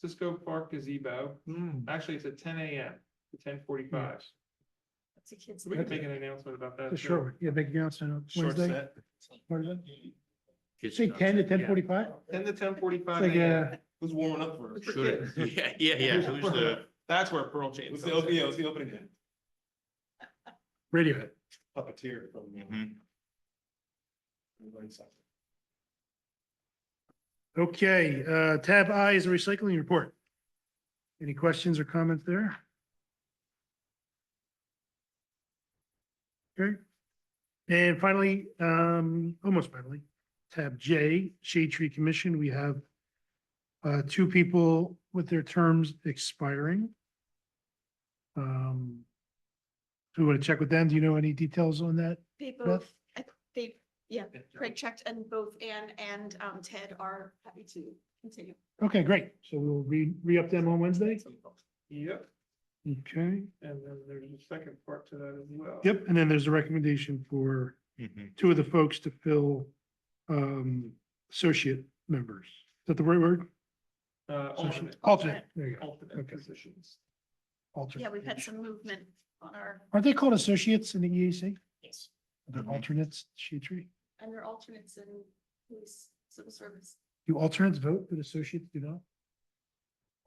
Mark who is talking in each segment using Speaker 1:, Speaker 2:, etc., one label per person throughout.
Speaker 1: Cisco Park gazebo.
Speaker 2: Hmm,
Speaker 1: Actually, it's at ten AM to ten forty-five.
Speaker 3: It's a kid's.
Speaker 1: So we can
Speaker 3: thing.
Speaker 1: make an announcement about that. too.
Speaker 2: Sure, yeah, big announcement on
Speaker 4: Short
Speaker 2: Wednesday.
Speaker 4: set.
Speaker 2: What is it?
Speaker 4: Kids
Speaker 2: Say
Speaker 4: don't
Speaker 2: ten to
Speaker 4: set.
Speaker 2: ten forty-five?
Speaker 1: Ten to ten forty-five
Speaker 2: Like,
Speaker 1: AM.
Speaker 2: uh,
Speaker 4: Who's warming up for
Speaker 1: It's
Speaker 4: us?
Speaker 1: for
Speaker 4: Should it? Yeah, yeah, yeah. Who's the,
Speaker 1: That's where Pearl Jam.
Speaker 4: who's the,
Speaker 1: comes in.
Speaker 4: yeah, who's the opening band?
Speaker 2: Radiohead.
Speaker 4: Puppeteer from. uh,
Speaker 5: Mhm.
Speaker 4: Line Sucker.
Speaker 2: Okay, uh, tab I is the recycling report. Any questions or comments there? Okay. And finally, um, almost finally, tab J, Shade Tree Commission, we have uh, two people with their terms expiring. Um, do you want to check with them? Do you know any details on that?
Speaker 3: They
Speaker 2: Beth?
Speaker 3: both, I- they, yeah, Craig checked and both Ann and um, Ted are happy to continue.
Speaker 2: Okay, great. So we'll re, re-up them on Wednesday.
Speaker 1: Yep,
Speaker 2: Okay.
Speaker 1: and then there's a second part to that as well.
Speaker 2: Yep, and then there's a recommendation for
Speaker 5: Mhm.
Speaker 2: two of the folks to fill um associate members. Is that the right word?
Speaker 1: Uh, alternate.
Speaker 2: Alternate, there you go,
Speaker 1: Alternate
Speaker 2: Okay.
Speaker 1: positions.
Speaker 2: alternate.
Speaker 3: Yeah, we've had some movement on our,
Speaker 2: Aren't they called associates in the E EAC?
Speaker 3: yes,
Speaker 2: They're
Speaker 5: Mhm.
Speaker 2: alternates, she tree.
Speaker 3: and they're alternates in police civil service.
Speaker 2: Do alternates vote, but associates do not?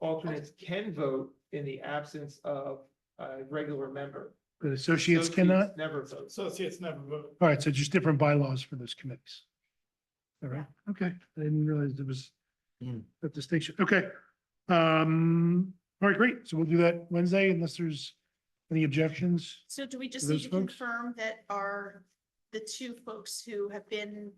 Speaker 1: Alternates can vote in the absence of a regular member.
Speaker 2: But associates cannot?
Speaker 1: Never vote.
Speaker 4: Associates never vote.
Speaker 2: All right, so just different bylaws for those committees. All right, okay, I didn't realize there was
Speaker 5: Hmm.
Speaker 2: that distinction, okay. Um, all right, great, so we'll do that Wednesday unless there's any objections.
Speaker 3: So do we just
Speaker 2: Those
Speaker 3: need to
Speaker 2: folks?
Speaker 3: confirm that are the two folks who have been,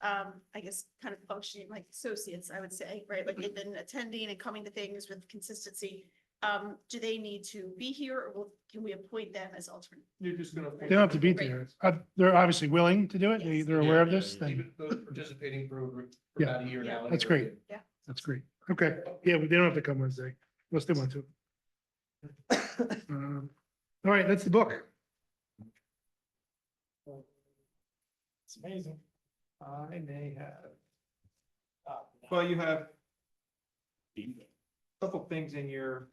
Speaker 3: um, I guess, kind of functioning like associates, I would say, right? Like they've been attending and coming to things with consistency. Um, do they need to be here or will- can we appoint them as alternate?
Speaker 1: You're just gonna.
Speaker 2: They don't have to be there. Uh, They're obviously willing to do it. They,
Speaker 3: Yes.
Speaker 2: they're aware of
Speaker 5: Yeah,
Speaker 2: this,
Speaker 5: yeah,
Speaker 2: then
Speaker 4: Even those participating for over- for
Speaker 2: Yeah.
Speaker 4: about a year
Speaker 3: Yeah.
Speaker 4: now.
Speaker 2: That's great.
Speaker 3: Yeah.
Speaker 2: that's great. Okay, yeah, but they don't have to come Wednesday unless they want to. Um, All right, that's the book.
Speaker 4: It's amazing.
Speaker 1: I may have. Well, you have a couple things in your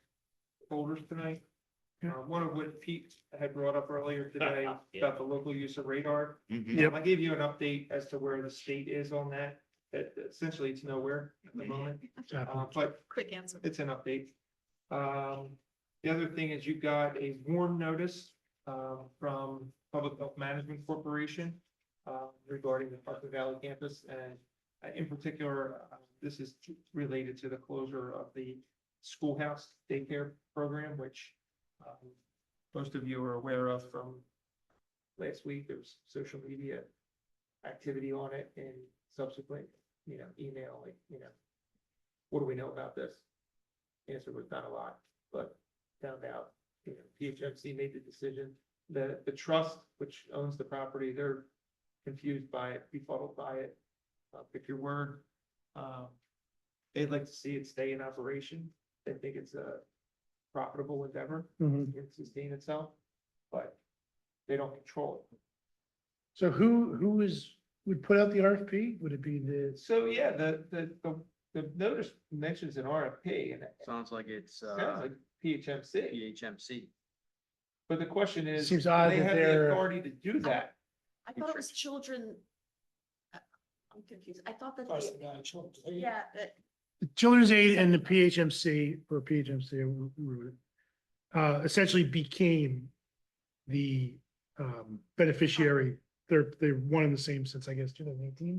Speaker 1: folders tonight. Uh,
Speaker 2: Yeah.
Speaker 1: one of which Pete had brought up earlier today about the local use of radar.
Speaker 5: Mhm.
Speaker 2: Yep.
Speaker 1: Um, I gave you an update as to where the state is on that. That essentially it's nowhere at
Speaker 3: Mm-hmm.
Speaker 1: the moment,
Speaker 2: Mm-hmm.
Speaker 1: uh, but
Speaker 3: Quick answer.
Speaker 1: it's an update. Um, the other thing is you got a warn notice, um, from Public Health Management Corporation, uh, regarding the Parker Valley campus, and uh, in particular, uh, this is related to the closure of the schoolhouse daycare program, which, um, most of you are aware of from last week, there was social media activity on it and subsequent, you know, email, like, you know, what do we know about this? Answer was not a lot, but found out, you know, PHMC made the decision that the trust, which owns the property, they're confused by it, befuddled by it. Uh, pick your word. Um, they'd like to see it stay in operation. They think it's a profitable endeavor,
Speaker 2: Mhm.
Speaker 1: it can sustain itself, but they don't control it.
Speaker 2: So who, who is, would put out the RFP? Would it be the,
Speaker 1: So, yeah, the, the, the, the notice mentions an RFP and it
Speaker 6: Sounds like it's,
Speaker 1: sounds
Speaker 6: uh,
Speaker 1: like PHMC.
Speaker 6: PHMC.
Speaker 1: But the question is, do
Speaker 2: Seems
Speaker 1: they
Speaker 2: odd
Speaker 1: have
Speaker 2: that
Speaker 1: the
Speaker 2: they're-
Speaker 1: authority to do that?
Speaker 3: I thought it was children. I- I'm confused. I thought
Speaker 2: Oh,
Speaker 3: that, they- yeah, uh, that,
Speaker 2: the Children's Aid and the PHMC, or PHMC, I wrote- wrote it, uh, essentially became the, um, beneficiary. They're, they're one and the same since, I guess, two thousand eighteen,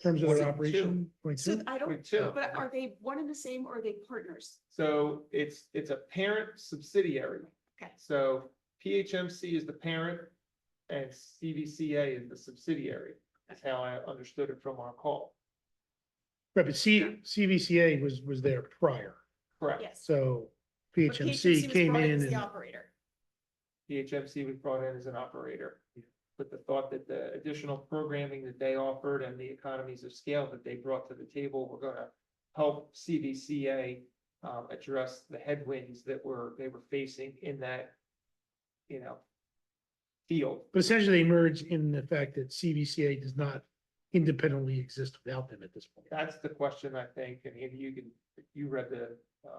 Speaker 2: in terms of their
Speaker 1: Point two.
Speaker 2: operation. Point
Speaker 3: so
Speaker 2: two?
Speaker 3: I don't,
Speaker 1: Point two.
Speaker 3: but are they one and the same or are they partners?
Speaker 1: So it's, it's a parent subsidiary.
Speaker 3: Okay.
Speaker 1: So PHMC is the parent and CVCA is the subsidiary. That's how I understood it from our call.
Speaker 2: Right, but C, CVCA was, was there prior,
Speaker 1: Correct.
Speaker 3: Yes.
Speaker 2: so
Speaker 3: But
Speaker 2: PHMC
Speaker 3: was
Speaker 2: came
Speaker 3: brought
Speaker 2: in
Speaker 3: as
Speaker 2: and,
Speaker 3: The operator.
Speaker 1: PHMC was brought in as an operator. But the thought that the additional programming that they offered and the economies of scale that they brought to the table were gonna help CVCA um, address the headwinds that were, they were facing in that, you know, field.
Speaker 2: but essentially they merged in the fact that CVCA does not independently exist without them at this point.
Speaker 1: That's the question, I think, and Andy, you can, you read the